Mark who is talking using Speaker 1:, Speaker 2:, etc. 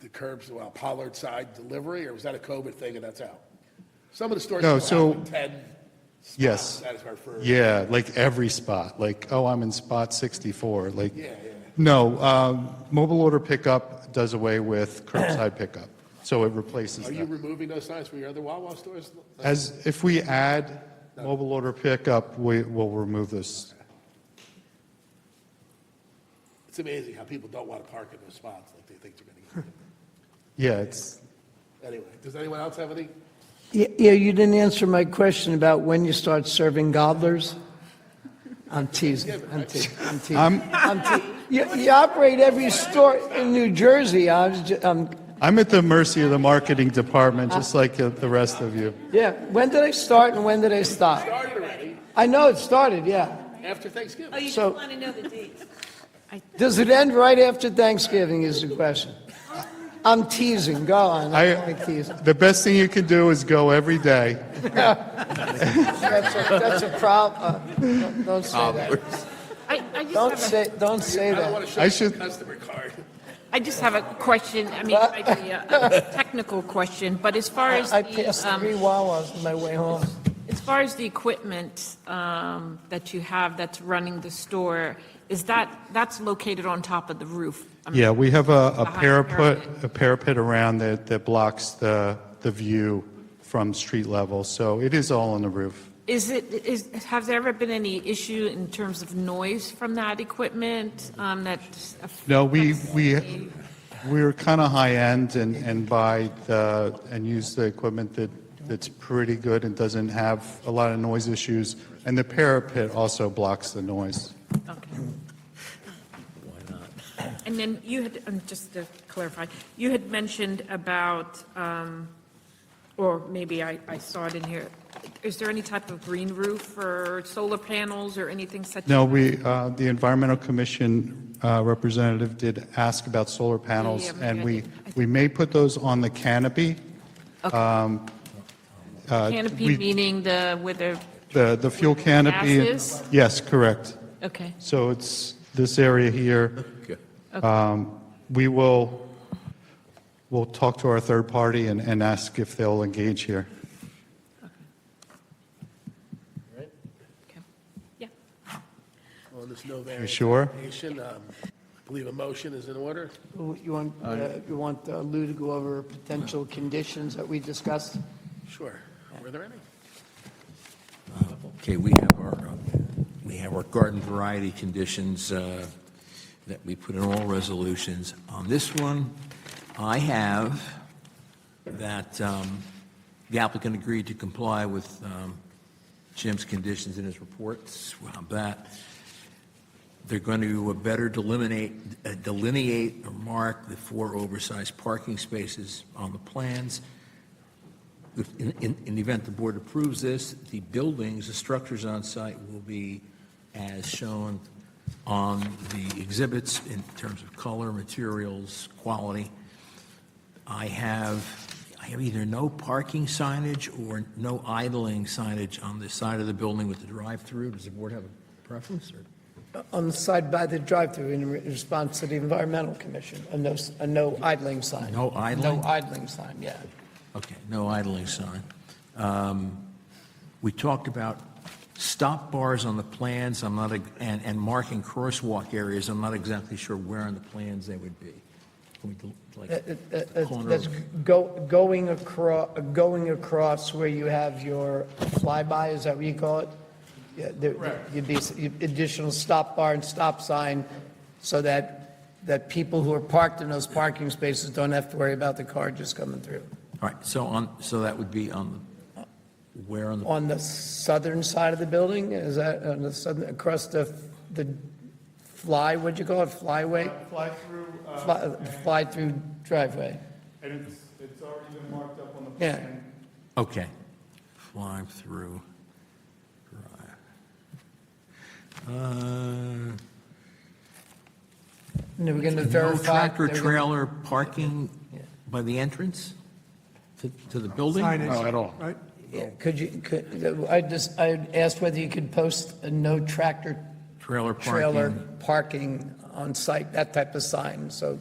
Speaker 1: the curbs, well, Pollard side delivery, or was that a COVID thing and that's out? Some of the stores.
Speaker 2: No,
Speaker 1: still
Speaker 2: so-
Speaker 1: have Ten.
Speaker 2: Yes.
Speaker 1: spots Satisfied for.
Speaker 2: Yeah, like every spot, like, oh, I'm in spot 64, like,
Speaker 1: Yeah, yeah.
Speaker 2: no, um, mobile order pickup does away with curbside pickup, so it replaces
Speaker 1: Are you
Speaker 2: that.
Speaker 1: removing those signs from your other Wawa stores?
Speaker 2: As, if we add mobile order pickup, we will remove this.
Speaker 1: It's amazing how people don't want to park in those spots, like they think they're going to get.
Speaker 2: Yeah, it's,
Speaker 1: Anyway, does anyone else have any?
Speaker 3: Yeah, yeah, you didn't answer my question about when you start serving gobblers. I'm teasing, I'm teasing, I'm teasing. I'm te- You, you operate every store in New Jersey, I was, ju- um,
Speaker 2: I'm at the mercy of the marketing department, just like uh, the rest of you.
Speaker 3: yeah, when did I start and when did I stop?
Speaker 1: Started already,
Speaker 3: I know it started, yeah.
Speaker 1: after Thanksgiving.
Speaker 4: Oh, you just
Speaker 3: So-
Speaker 4: want to know the dates.
Speaker 3: Does it end right after Thanksgiving is the question? I'm teasing, go on, I don't
Speaker 2: I-
Speaker 3: like teasing.
Speaker 2: The best thing you can do is go every day.
Speaker 3: That's a, that's a problem, don't say that.
Speaker 5: I, I just
Speaker 3: Don't
Speaker 5: have a,
Speaker 3: say, don't say
Speaker 1: I don't
Speaker 3: that.
Speaker 1: want to show
Speaker 2: I
Speaker 1: you
Speaker 2: should-
Speaker 1: my customer card.
Speaker 5: I just have a question, I mean, it might be a a technical question, but as far as
Speaker 3: I
Speaker 5: the,
Speaker 3: passed
Speaker 5: um,
Speaker 3: three Wawas on my way home.
Speaker 5: as far as the equipment, um, that you have that's running the store, is that, that's located on top of the roof? I mean,
Speaker 2: Yeah, we have a, a
Speaker 5: Behind the
Speaker 2: parapet,
Speaker 5: parapet.
Speaker 2: a parapet around that, that blocks the, the view from street level, so it is all on the roof.
Speaker 5: Is it, is, has there ever been any issue in terms of noise from that equipment, um, that?
Speaker 2: No, we,
Speaker 5: affects
Speaker 2: we,
Speaker 5: the-
Speaker 2: we were kind of high-end and, and buy the, and use the equipment that, that's pretty good and doesn't have a lot of noise issues, and the parapet also blocks the noise.
Speaker 5: Okay. And then you had, um, just to clarify, you had mentioned about, um, or maybe I I saw it in here, is there any type of green roof or solar panels or anything such?
Speaker 2: No, we, uh, the Environmental Commission uh, representative did ask about solar panels,
Speaker 5: Yeah, yeah,
Speaker 2: and
Speaker 5: I
Speaker 2: we,
Speaker 5: did. I
Speaker 2: we may put those on the canopy,
Speaker 5: Canopy
Speaker 2: uh, we-
Speaker 5: meaning the, with the,
Speaker 2: the, the fuel canopy.
Speaker 5: Gases?
Speaker 2: Yes, correct.
Speaker 5: okay,
Speaker 2: So it's this area here. Um, We will, we'll talk to our third party and, and ask if they'll engage here.
Speaker 5: okay, yeah.
Speaker 1: On this no
Speaker 2: You
Speaker 1: variance
Speaker 2: sure?
Speaker 1: application, um, I believe a motion is in order.
Speaker 3: You want, uh, you want uh, Lou to go over potential conditions that we discussed?
Speaker 1: Sure. Were there any?
Speaker 6: Okay, we have our, uh, we have our garden variety conditions uh, that we put in all resolutions. On this one, I have that um, the applicant agreed to comply with um, Jim's conditions in his reports. Well, that, they're going to uh, better delineate, uh, delineate or mark the four oversized parking spaces on the plans. If- In, in, in the event the board approves this, the buildings, the structures on site will be as shown on the exhibits in terms of color, materials, quality. I have, I have either no parking signage or no idling signage on the side of the building with the drive-through. Does the board have a preference or?
Speaker 3: On the side by the drive-through in re- response to the environmental commission, a no, s- a no idling sign.
Speaker 6: No idling?
Speaker 3: No idling sign, yeah.
Speaker 6: Okay, no idling sign. Um, We talked about stop bars on the plans, I'm not, and, and marking crosswalk areas, I'm not exactly sure where on the plans they would be. Can we, del-
Speaker 3: That- that-
Speaker 6: like, the
Speaker 3: That's
Speaker 6: corner
Speaker 3: that's
Speaker 6: of-
Speaker 3: go, going across, going across where you have your flyby, is that what you call it? Yeah, there- You'd be s- you'd- additional stop bar and stop sign so that, that people who are parked in those parking spaces don't have to worry about the car just coming through.
Speaker 6: All right, so on, so that would be on, the- where on the,
Speaker 3: On the southern side of the building, is that on the southern, across the, the fly, what'd you call it, flyway?
Speaker 7: Fly-through, uh,
Speaker 3: Fly, fly-through driveway.
Speaker 7: and it's, it's already been marked up on the
Speaker 3: Yeah.
Speaker 7: plan.
Speaker 6: okay. Fly through. drive. Uh,
Speaker 3: And they were gonna
Speaker 6: No
Speaker 3: verify.
Speaker 6: tractor
Speaker 3: they were gonna-
Speaker 6: trailer parking by the entrance to, to the building?
Speaker 2: No, at all.
Speaker 3: Yeah, Could you, could, I just, I asked whether you could post a no tractor
Speaker 6: Trailer
Speaker 3: trailer
Speaker 6: parking.
Speaker 3: parking on site, that type of sign, so